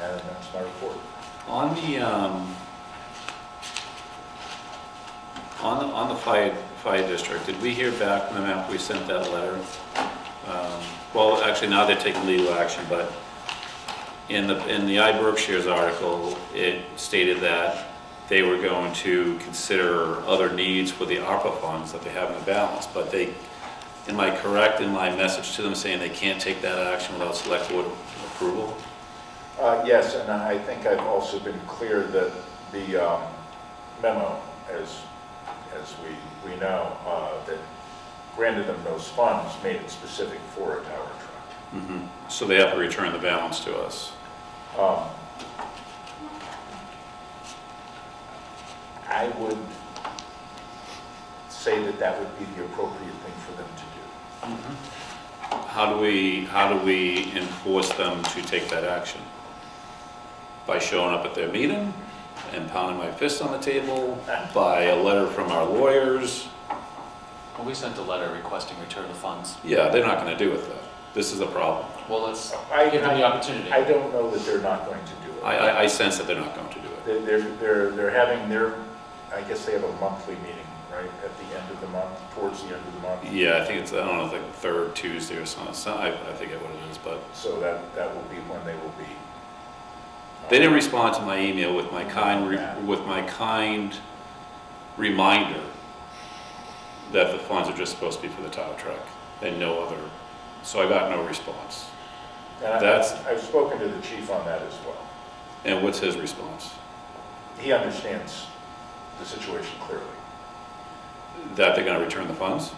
And that's my report. On the, um, on the, on the fire, fire district, did we hear back from them after we sent that letter? Um, Well, actually, now they're taking legal action, but in the, in the I Berkshire's article, it stated that they were going to consider other needs for the ARPA funds that they have in the balance, but they, am I correct in my message to them saying they can't take that action without select board approval? Uh, Yes, and I think I've also been clear that the um, memo, as, as we, we know, uh, that granted them those funds, made it specific for a tower truck. So they have to return the balance to us? Um, I would say that that would be the appropriate thing for them to do. How do we, how do we enforce them to take that action? By showing up at their meeting and pounding my fist on the table, by a letter from our lawyers? Well, we sent a letter requesting return of funds. Yeah, they're not gonna do it though. This is a problem. Well, let's Uh, I- give them the opportunity. I don't know that they're not going to do it. I, I, I sense that they're not going to do it. They- They're, they're, they're having their, I guess they have a monthly meeting, right, at the end of the month, towards the end of the month. Yeah, I think it's, I don't know, it's like the third Tuesday or something, So I, I forget what it is, but So that, that will be when they will be. they didn't respond to my email with my kind, re- with my kind reminder that the funds are just supposed to be for the tow truck and no other, so I got no response. And I- That's- I've spoken to the chief on that as well. And what's his response? He understands the situation clearly. That they're gonna return the funds?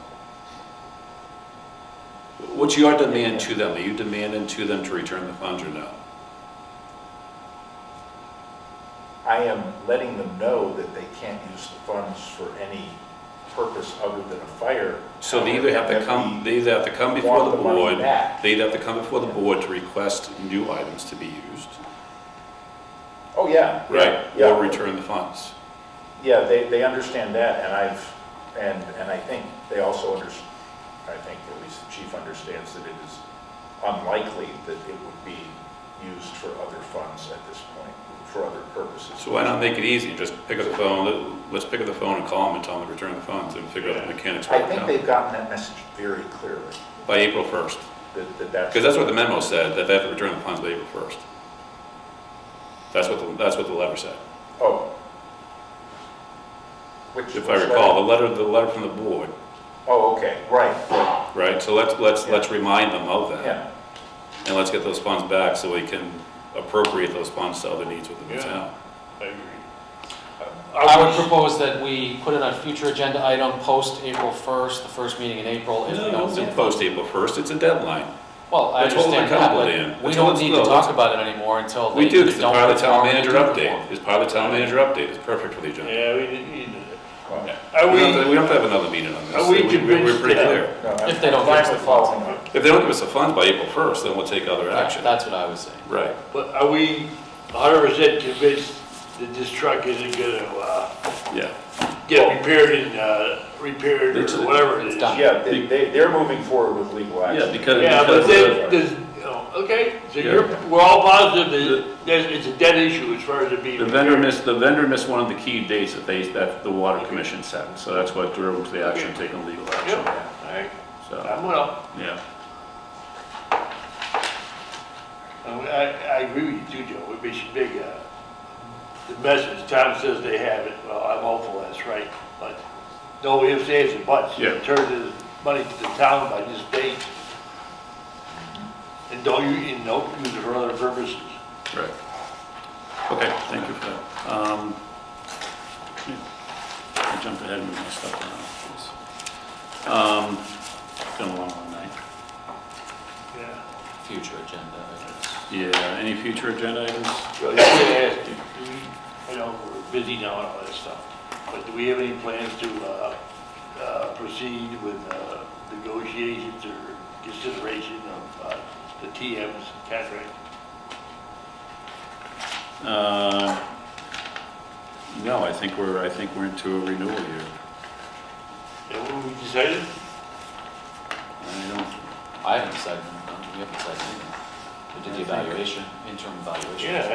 What's your demand to them? Are you demanding to them to return the funds or no? I am letting them know that they can't use the funds for any purpose other than a fire. So they either have to That come, we they either have to come before want the the money board, back. they either have to come before the board to request new items to be used, Oh, yeah. right? yeah, yeah. Or return the funds. Yeah, they, they understand that, and I've, and, and I think they also under, I think at least the chief understands that it is unlikely that it would be used for other funds at this point, for other purposes. So why not make it easy and just pick up the phone, let- let's pick up the phone and call them and tell them to return the funds and figure out the mechanics I work think out they've gotten that message very clearly, by April first. that, that that's. Because that's what the memo said, that they have to return the funds by April first. That's what, the- that's what the letter said. Oh. Which. If I which recall, letter? the letter, the letter from the board, Oh, okay, right, right, right? So let's, let's, let's remind them of that. yeah. And let's get those funds back so we can appropriate those funds to other needs within the Yeah. town. I agree. I would propose that we put it on future agenda item post April 1st, the first meeting in April, if we No, don't it's get in it. post April first, it's a deadline. Well, I That's what we're understand that, accommodating. but we That's don't what need it's to about. talk about it anymore until they We they do, don't. because it's part of the town perform and manager do update. perform. It's part of the town manager update, it's perfect for the agenda. Yeah, we didn't need it. Well, no, Are We don't have to- we, we don't have to have another meeting on this. Are We- we we- We're convinced pretty that- clear. I'm- If they don't I'm fine fix the with funds. following up. If they don't give us the funds by April 1st, then we'll take other Yeah, action. That's what I was saying. Right. but are we hundred percent convinced that this truck isn't gonna, uh, Yeah. get repaired and, uh, repaired It's- or whatever it it's is? done. Yeah, they, they, they're moving forward with legal action. Yeah, because. Yeah, but because then, of- there's, you know, okay, so Yeah. you're, we're all positive that there's, it's a dead issue as far as it being. The vendor repaired. missed, the vendor missed one of the key dates that they, that the water commission set, so that's what drove to the action, taking legal action, Yep, all right, so, I'm well, yeah. I, I agree with you too, Joe, we should make, uh, the message, Tom says they have it, well, I'm hopeful that's right, but no ifs, ands, and buts. Yeah. Turn the money to the town by this date. And don't you, and don't use it for other purposes. Right. Okay, thank you for that. Um, yeah, I jumped ahead and messed up on that. Um, It's been a long, long night. Yeah. Future agenda items. Yeah, any future agenda items? So that's what I asked you. Do we- I know we're busy now and all that stuff, but do we have any plans to uh, uh, proceed with uh, negotiations or consideration of uh, the TM's contract? Uh, No, I think we're, I think we're into a renewal year. And what we decided? I don't, I haven't decided, we haven't decided anything. We did the evaluation, interim evaluation. Yeah,